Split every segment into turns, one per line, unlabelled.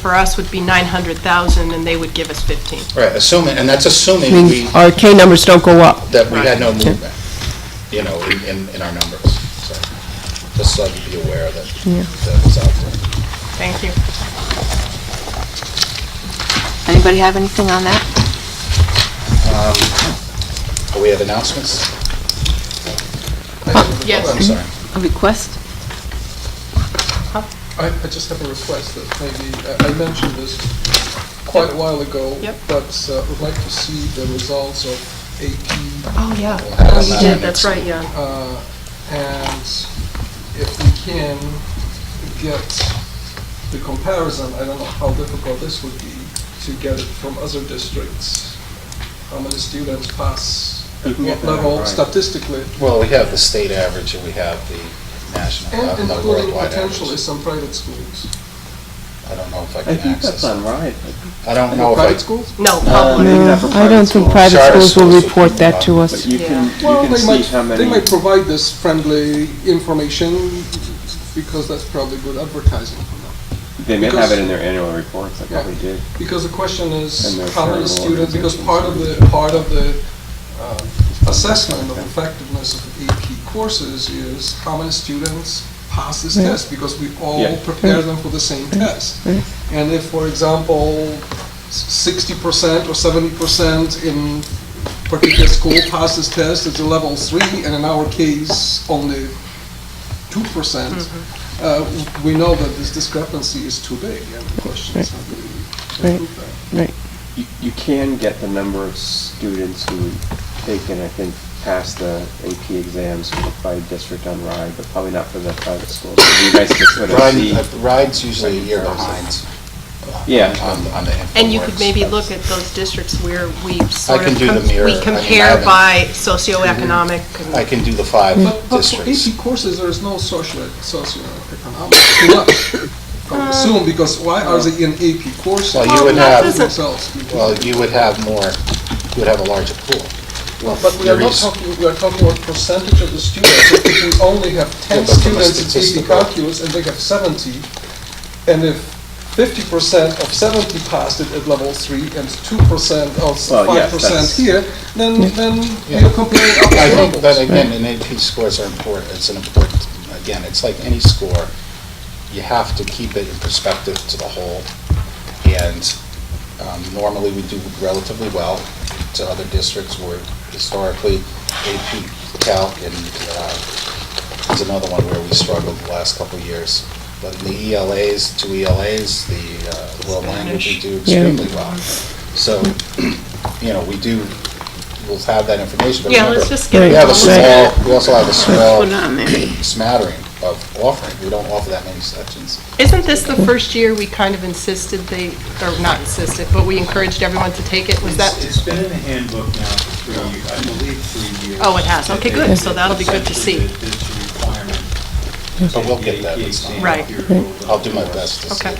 for us would be 900,000, and they would give us 15.
Right, assuming, and that's
I
assuming we,
mean, our K numbers don't go up.
that we had no movement, you know, in- in, in our numbers. So Just so you be aware that, that it's out there.
Thank you.
Anybody have anything on that?
Do Oh, we have announcements?
yes.
I'm
Mm-hmm.
sorry.
A request?
I, I just have a request that maybe, uh, I- I mentioned this quite a while ago.
Yep.
But uh, would like to see the results of AP,
Oh, yeah.
We'll have
Oh,
that
you
on
did,
the
that's
next-
right, yeah.
uh, and if we can get the comparison, I don't know how difficult this would be, to get it from other districts, how many students pass, at what level statistically,
Well, we have the state average and we have the national, uh,
and
no,
including
worldwide
potentially
average.
some private schools.
I don't know if I
I
can
think that's
access.
on right.
I don't know if I,
Private schools?
No,
Uh,
public.
maybe not for
No, I don't think
schools,
private
Charter
schools will
schools.
report that to
But
us.
you can,
Well,
you can
they
see how
might,
many.
they might provide this friendly information because that's probably good advertising for them.
They may
Because-
have it in their annual reports, they probably
Yeah.
do.
Because the question is,
And they're
how many
charitable
students, because part of the, part of the uh, assessment of effectiveness of AP courses is how many students pass this
Yeah.
test, because we all
Yeah.
prepare them for the same test.
Yeah.
And if, for example, sixty percent or seventy percent in particular school passes test, it's a level three, and in our case, only two percent, uh, we know that this discrepancy is too big, and the question is how do we improve that?
You, you can get the number of students who take and I think pass the AP exams by district on RIDE, but probably not for the private schools. It'd be nice to sort of see-
Ride- ride's usually a year behind
Yeah,
on, on the info
And you could
works.
maybe look at those districts where we sort
can
of,
do the
com-
mirror. I
we
mean, I
compare
haven't-
by socioeconomic. and-
I can do the five
But, but for
districts.
AP courses, there is no social, socioeconomic, too much, I would assume, because why are they in AP courses?
Well, you would have-
Themselves.
Well, you would have more, you would have a larger pool.
Well, but we are not
There is-
talking, we are talking about percentage of the students. If we only have ten
Yeah, but from a
students in AP
statistical-
calculus and they have seventy, and if fifty percent of seventy passed it at level three and two percent or
Well, yeah,
five percent
that's-
here, then, then
Yeah.
you're comparing
I
apples to
think,
apples.
but again, and AP scores are important, it's an important, again, it's like any score, you have to keep it in perspective to the whole, and um, normally we do relatively well to other districts where historically AP Calc and, uh, is another one where we struggled the last couple of years. But in the ELAs, two ELAs, the uh, world language, we do
Yeah.
extremely well. So, you know, we do, we'll have that information, but
Yeah,
remember,
let's just get
Right.
we
it
have a
going.
small, we also have a small
Put on there.
smattering of offering. We don't offer that many sections.
Isn't this the first year we kind of insisted they, or not insisted, but we encouraged everyone to take it? Was
It's-
that,
It's been in the handbook now for three years, I believe three years.
Oh, it has. Okay,
That
good.
they-
So that'll be good to see.
that It's a requirement.
But we'll get that.
The exam
Right.
here will-
I'll do my best to see.
Okay.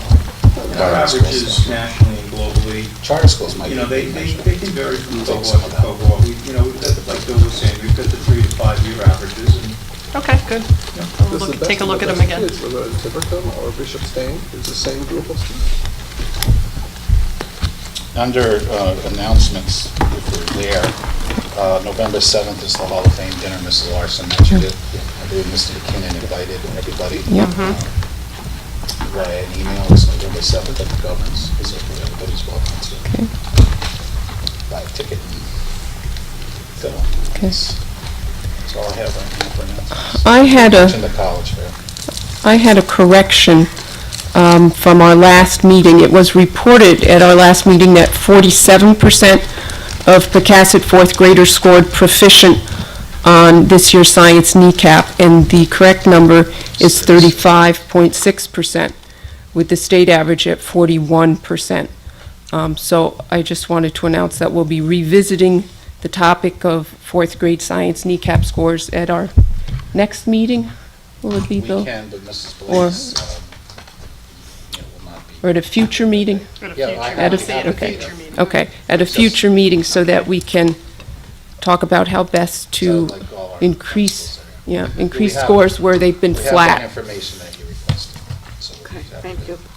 Our averages nationally and globally,
Charter schools might.
you know, they, they, they can vary from
Take
cohort
some of
to
that.
cohort. We, you know, we've got, the like Bill was saying, we've got the three to five year averages and
okay, good. We'll
That's the
look-
best
Take a
of
look
the
at them
best
again.
kids, Whether it's Tiverton or Bishop Stain, it's the same group of students.
Under uh, announcements, if we're there, uh, November 7th is the Hall of Fame dinner. Mrs. Larson mentioned it. I believe Mr. McKinnon invited everybody. Uh,
Yeah.
Via an email, it's November 7th at the governance, so everybody's welcome to buy a ticket and go.
Okay.
That's that's all I have right now for announcements.
I had a,
Mentioned the college fair.
I had a correction um, from our last meeting. It was reported at our last meeting that 47% of Pecasset fourth graders scored proficient on this year's science kneecap, and the correct number is 35.6%, with the state average at 41%. Um, So I just wanted to announce that we'll be revisiting the topic of fourth grade science kneecap scores at our next meeting. Will it be,
We
Bill?
can, but Mrs.
Or-
Blaine's, um, you know, will not be.
Or at a future meeting?
At a
Yeah,
future-
I-
At a-
I'll say at a
okay.
future meeting.
Okay, at a future meeting so that we can talk about how best to
So, like, all our
increase,
principals are-
yeah, increase
have-
scores where they've been
We have that
flat.
information that you requested. so we
Okay,
have
thank
it.
you.